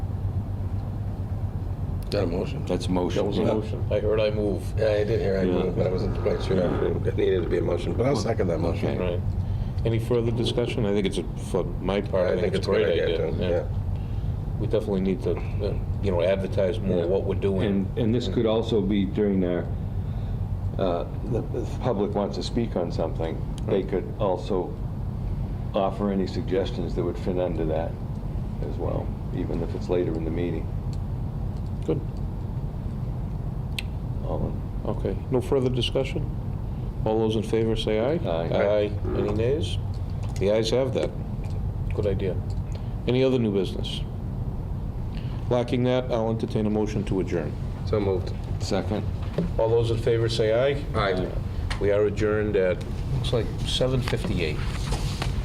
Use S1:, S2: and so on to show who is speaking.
S1: that a motion?
S2: That's a motion.
S3: That was a
S2: yeah.
S3: motion.
S1: I heard I move. Yeah, I did hear I
S2: Yeah.
S1: move, but I wasn't quite sure. It needed to be a motion, but I'll second that motion.
S2: Okay.
S3: Right. Any further discussion? I think it's, a for my part, I think it's a
S1: a
S3: great
S1: good
S3: idea.
S1: too,
S3: We definitely need to, uh, you know, advertise more what we're doing.
S2: And, and this could also be during their, uh, the the public wants to speak on something, they could also offer any suggestions that would fit under that as well, even if it's later in the meeting.
S3: Good.
S2: All
S3: Okay. No further discussion? All those in favor say aye.
S2: Aye.
S3: Aye. Any nays? The ayes have that. Good idea. Any other new business? Lacking that, I'll entertain a motion to adjourn.
S1: yeah. So moved.
S2: in. Second?
S3: All those in favor say aye.
S1: Aye.
S3: We are adjourned at, looks like 7:58.